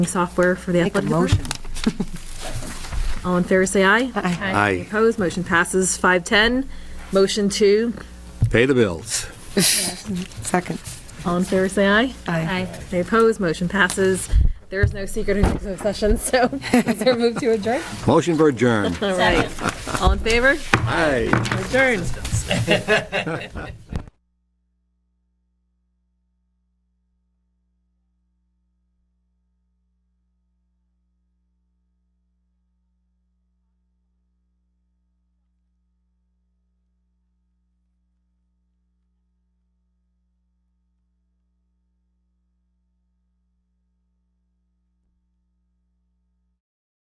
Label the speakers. Speaker 1: software for the
Speaker 2: Make a
Speaker 1: athletic
Speaker 2: motion.
Speaker 1: department. All in favor, say aye.
Speaker 2: Aye.
Speaker 1: Any
Speaker 3: Aye.
Speaker 1: Opposed, motion passes 510. Motion two,
Speaker 3: Pay the bills.
Speaker 2: Second.
Speaker 1: all in favor, say aye.
Speaker 2: Aye.
Speaker 1: Any opposed, motion passes. There is no secret in executive session, so is there a move to adjourn?
Speaker 3: Motion for adjourn.
Speaker 1: All right. All in favor?
Speaker 3: Aye.
Speaker 1: Adjourned.